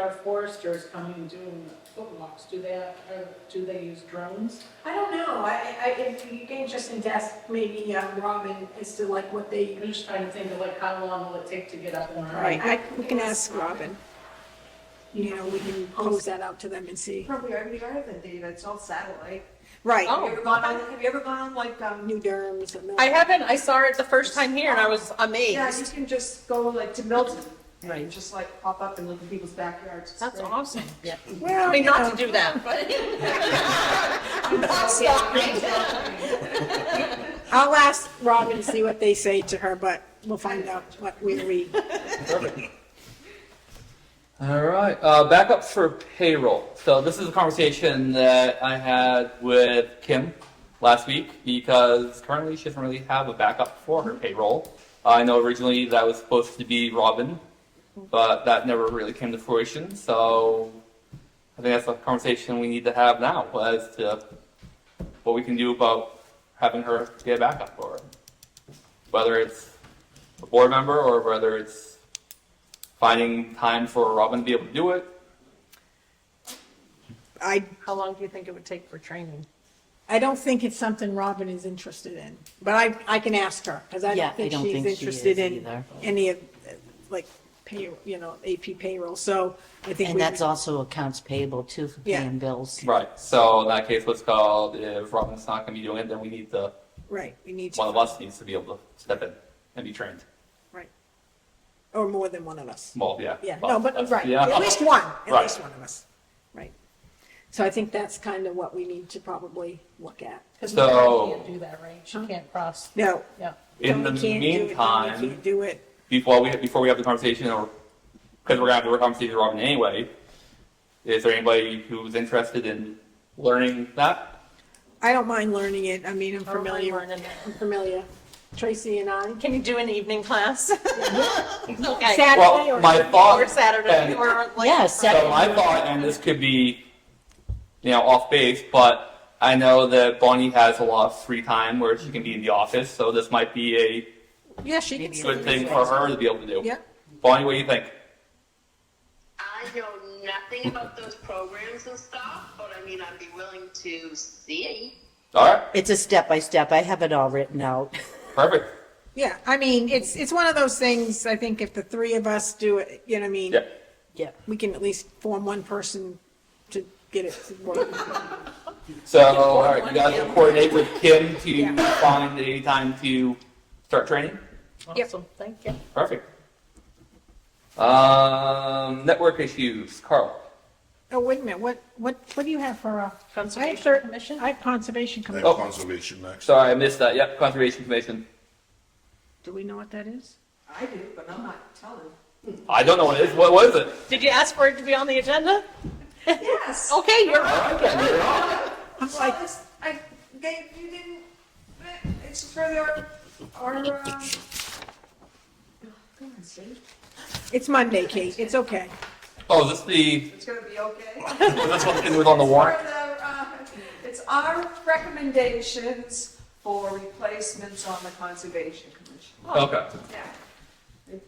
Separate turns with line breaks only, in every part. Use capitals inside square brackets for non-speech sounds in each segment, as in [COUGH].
our foresters coming and doing foot walks, do they, uh, do they use drones?
I don't know, I, I, if you can just ask maybe um, Robin as to like what they.
I'm just trying to think of like, how long will it take to get up and running?
Right, I- we can ask Robin.
You know, we can pose that out to them and see.
Probably already are then, Dave. It's all satellite.
Right,
Have you ever gone on, have you ever gone on like, um,
New Durham's and.
I haven't, I saw it the first time here and I was
yeah, you
amazed.
can just go like to Milton
Right.
and just like pop up and look at people's backyards. It's
That's
great.
awesome. Yeah. I
Well,
mean,
you
not
know,
to do that, but.
[LAUGHS]
I'm not stopping.
I'll ask Robin to see what they say to her, but we'll find out what we read.
All right, uh, back up for payroll. So this is a conversation that I had with Kim last week because currently she doesn't really have a backup for her payroll. I know originally that was supposed to be Robin, but that never really came to fruition. So I think that's a conversation we need to have now as to what we can do about having her get a backup for it. Whether it's a board member or whether it's finding time for Robin to be able to do it.
I,
How long do you think it would take for training?
I don't think it's something Robin is interested in, but I, I can ask her, because I
Yeah,
don't
I
think
don't
she's
think she is
interested in
either.
any of, uh, like, pay, you know, AP payroll, so I think.
And
we-
that's also accounts payable too for
Yeah.
paying bills.
Right. So in that case, what's called if Robin's not going to be doing it, then we need the
Right, we need
one of
to,
us needs to be able to step in and be trained.
right. Or more than one of us.
Well, yeah.
Yeah,
Well,
no, but,
that's-
right,
Yeah.
at least one, at
Right.
least one of us, right. So I think that's kind of what we need to probably look at.
Because
So-
Can't do that, right? She can't cross,
No,
yeah.
in the
Tony can't do it, Tony
meantime,
Can't do it,
before we before we have the conversation, or because we're gonna have the conversation with Robin anyway, is there anybody who's interested in learning that?
I don't mind learning it, I mean, I'm
I don't mind
familiar,
learning it.
I'm familiar, Tracy and I.
Can you do an evening class? [LAUGHS] Okay.
Saturday
Well,
or?
my thought
Or Saturday
and-
or like.
Yeah,
So
Saturday.
my thought, and this could be, you know, off base, but I know that Bonnie has a lot of free time where she can be in the office, so this might be a
Yeah, she can.
Maybe
good thing for her to be able to do.
Yeah.
Bonnie, what do you think?
I know nothing about those programs and stuff, but I mean, I'd be willing to see.
All right,
It's a step by step. I have it all written out.
perfect.
Yeah, I mean, it's, it's one of those things, I think if the three of us do it, you know what I mean?
Yeah.
Yeah.
We can at least form one person to get it to work.
So, all right, you guys will coordinate with Kim to
Yeah.
find a time to start training?
Awesome, thank you.
Perfect. Um, network issues, Carl.
Oh, wait a minute, what, what, what do you have for, uh? I have
Conservation
third-
Commission?
I have Conservation
I
Commission.
Oh.
have conservation next.
Sorry, I missed that. Yep, Conservation Commission.
Do we know what that is?
I do, but I'm not telling.
[LAUGHS]
I don't know what it is. What was it?
Did you ask for it to be on the agenda?
Yes.
Okay, you're right.
I'm
Well,
like,
it's, I, they, you didn't, it's for their, our, um. Come on, Steve.
it's Monday, Kate, it's okay.
Oh, is this the,
It's gonna be okay.
was this one that was on the warrant?
It's for the, uh, It's our recommendations for replacements on the Conservation Commission.
Okay.
Yeah. They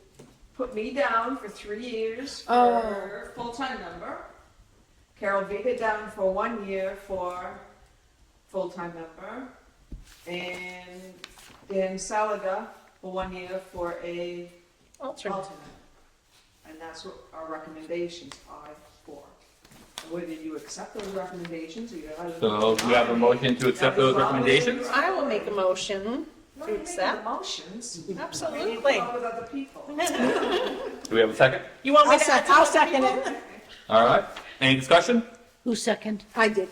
Put me down for three years
Oh.
for full-time member. Carol Vega down for one year for full-time member. And Dan Salaga for one year for a
Alternate.
alternate. And that's what our recommendations are for. Whether you accept those recommendations or you have.
So do you have a motion to accept those recommendations?
I will make a motion.
No, you make
accept.
the motions. We need to
Absolutely.
come up with other people.
Do we have a second?
You want me
I'll
to?
sec, I'll second it.
All right. Any discussion?
Who second?
I did.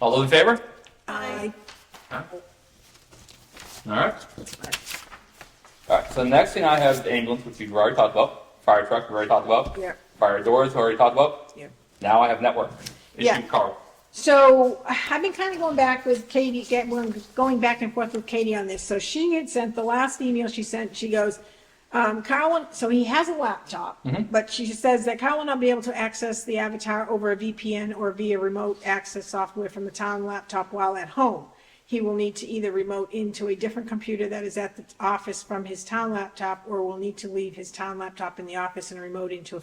All those in favor?
I,
All right. All right. So the next thing I have is ambulance, which we've already talked about. Fire truck, we've already talked about.
yeah.
Fire doors, already talked about.
Yeah.
Now I have network.
Yeah.
Issue Carl.
So I've been kind of going back with Katie, get- we're going back and forth with Katie on this. So she had sent, the last email she sent, she goes, um, Carl, so he has a laptop, but she says that Carl will not be able to access the avatar over a VPN or via remote access software from the town laptop while at home. He will need to either remote into a different computer that is at the office from his town laptop or will need to leave his town laptop in the office and remote into a